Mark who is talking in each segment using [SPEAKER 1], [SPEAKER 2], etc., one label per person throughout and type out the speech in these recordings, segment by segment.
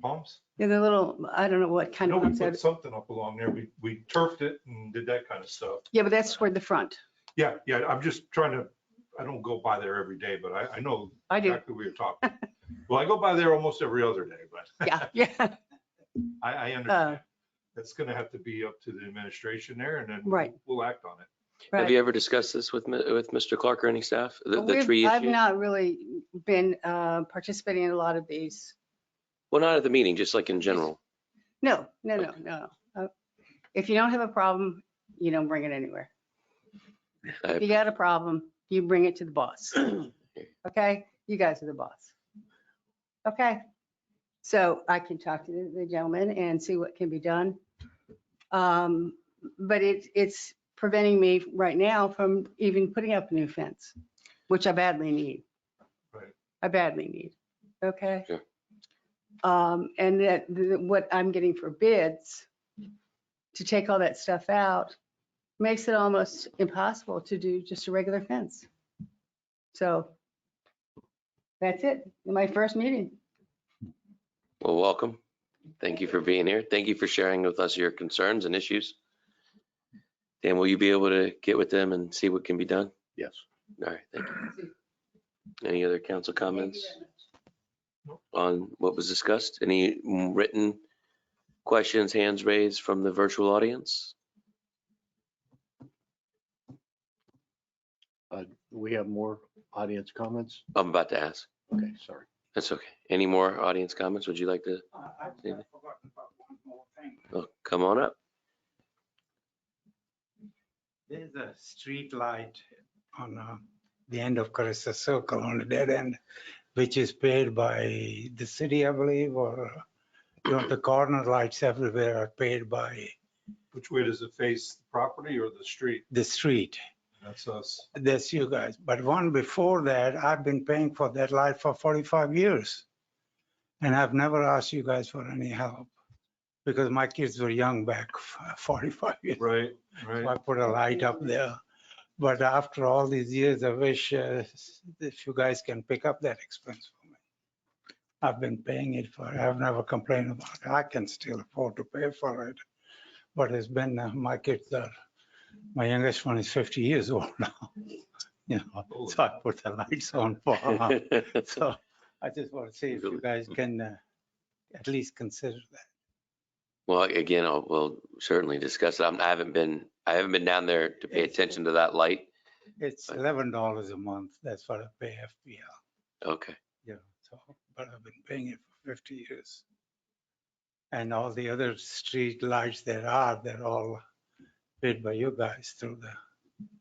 [SPEAKER 1] Palms?
[SPEAKER 2] Yeah, the little, I don't know what kind
[SPEAKER 1] No,
[SPEAKER 2] of
[SPEAKER 1] we
[SPEAKER 2] ones that,
[SPEAKER 1] put something up along there. We, we turfed it and did that kind of stuff.
[SPEAKER 2] yeah, but that's toward the front.
[SPEAKER 1] Yeah, yeah, I'm just trying to, I don't go by there every day, but I, I know
[SPEAKER 2] I do,
[SPEAKER 1] exactly what you're talking. Well, I go by there almost every other day, but
[SPEAKER 2] yeah, yeah,
[SPEAKER 1] I, I
[SPEAKER 2] Oh.
[SPEAKER 1] understand. That's gonna have to be up to the administration there and then
[SPEAKER 2] Right.
[SPEAKER 1] we'll act on it.
[SPEAKER 3] Have you
[SPEAKER 2] right.
[SPEAKER 3] ever discussed this with, Mi- with Mr. Clark or any staff? The, the
[SPEAKER 2] We've-
[SPEAKER 3] tree
[SPEAKER 2] I've
[SPEAKER 3] issue?
[SPEAKER 2] not really been uh, participating in a lot of these.
[SPEAKER 3] Well, not at the meeting, just like in general.
[SPEAKER 2] No, no, no, no. Uh, If you don't have a problem, you don't bring it anywhere.
[SPEAKER 3] I-
[SPEAKER 2] If you got a problem, you bring it to the boss. Okay? You guys are the boss. Okay? So I can talk to the- the gentleman and see what can be done. Um, But it, it's preventing me right now from even putting up a new fence, which I badly need.
[SPEAKER 1] Right.
[SPEAKER 2] I badly need. Okay?
[SPEAKER 3] Sure.
[SPEAKER 2] Um, And that, th- what I'm getting for bids to take all that stuff out makes it almost impossible to do just a regular fence. So that's it, my first meeting.
[SPEAKER 3] Well, welcome. Thank you for being here. Thank you for sharing with us your concerns and issues. Dan, will you be able to get with them and see what can be done?
[SPEAKER 4] Yes.
[SPEAKER 3] All right, thank you. Any other council comments on what was discussed? Any written questions, hands raised from the virtual audience?
[SPEAKER 4] We have more audience comments?
[SPEAKER 3] I'm about to ask.
[SPEAKER 4] Okay, sorry.
[SPEAKER 3] That's okay. Any more audience comments? Would you like to?
[SPEAKER 5] I- I've
[SPEAKER 3] David?
[SPEAKER 5] got- forgotten about one more thing.
[SPEAKER 3] oh, Come on up.
[SPEAKER 5] There's a street light on uh, the end of Carissa Circle on the dead end, which is paid by the city, I believe, or you know, the corner lights everywhere are paid by
[SPEAKER 1] Which way does it face, the property or the street?
[SPEAKER 5] the street.
[SPEAKER 1] That's us.
[SPEAKER 5] That's you guys. But one before that, I've been paying for that light for 45 years. And I've never asked you guys for any help because my kids were young back 45 years
[SPEAKER 1] Right,
[SPEAKER 5] So
[SPEAKER 1] right.
[SPEAKER 5] I put a light up there. But after all these years, I wish uh, if you guys can pick up that expense for me. I've been paying it for, I've never complained about it. I can still afford to pay for it. But it's been, uh, my kids are, my youngest one is 50 years old now. You know, so I put the lights on for her. So I just want to see if you guys can uh, at least consider that.
[SPEAKER 3] Well, again, I'll, we'll certainly discuss it. I'm- I haven't been, I haven't been down there to pay attention to that light.
[SPEAKER 5] It's $11 a month. That's what I pay FPL.
[SPEAKER 3] Okay.
[SPEAKER 5] Yeah, so, but I've been paying it for fifty years. And all the other street lights there are, they're all paid by you guys through the,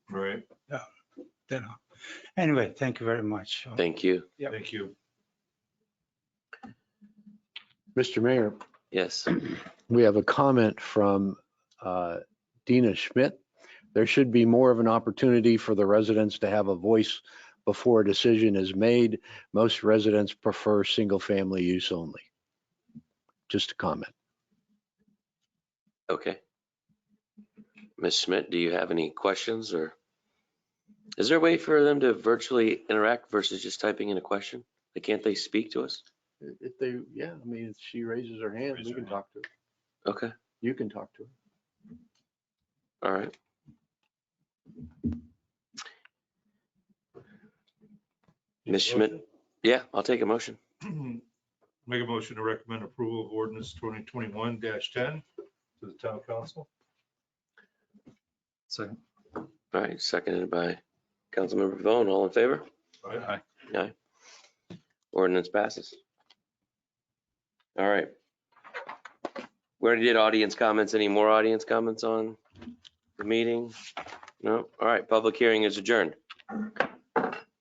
[SPEAKER 1] Right,
[SPEAKER 5] you know. Anyway, thank you very much.
[SPEAKER 3] Thank you.
[SPEAKER 5] Yep.
[SPEAKER 1] thank you.
[SPEAKER 4] Mr. Mayor,
[SPEAKER 3] Yes.
[SPEAKER 4] we have a comment from uh, Dina Schmidt. There should be more of an opportunity for the residents to have a voice before a decision is made. Most residents prefer single-family use only. Just a comment.
[SPEAKER 3] Okay. Ms. Schmidt, do you have any questions or? Is there a way for them to virtually interact versus just typing in a question? Like, can't they speak to us?
[SPEAKER 4] If they, yeah, I mean, if she raises her hand,
[SPEAKER 1] Raise her hand.
[SPEAKER 4] talk to her.
[SPEAKER 3] Okay,
[SPEAKER 4] You can talk to her.
[SPEAKER 3] all right. Ms. Schmidt, yeah, I'll take a motion.
[SPEAKER 1] Make a motion to recommend approval of ordinance twenty twenty-one ten to the town council.
[SPEAKER 3] All right, seconded by Councilmember Pavone. All in favor?
[SPEAKER 1] Aye.
[SPEAKER 3] Ordinance passes. All right. We already did audience comments. Any more audience comments on the meeting? No? All right, public hearing is adjourned.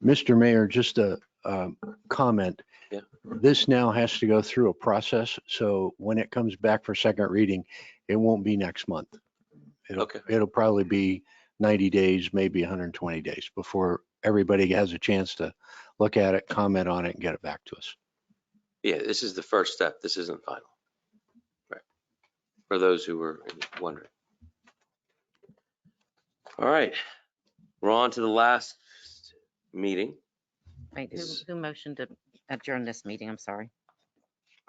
[SPEAKER 4] Mr. Mayor, just a um, comment.
[SPEAKER 3] Yeah.
[SPEAKER 4] This now has to go through a process, so when it comes back for second reading, it won't be next month. It'll-
[SPEAKER 3] Okay.
[SPEAKER 4] It'll probably be 90 days, maybe 120 days before everybody has a chance to look at it, comment on it, and get it back to us.
[SPEAKER 3] Yeah, this is the first step. This isn't final. Right. For those who were wondering. All right, we're on to the last meeting.
[SPEAKER 6] Wait, who,
[SPEAKER 3] Is-
[SPEAKER 6] who motioned to adjourn this meeting? I'm sorry.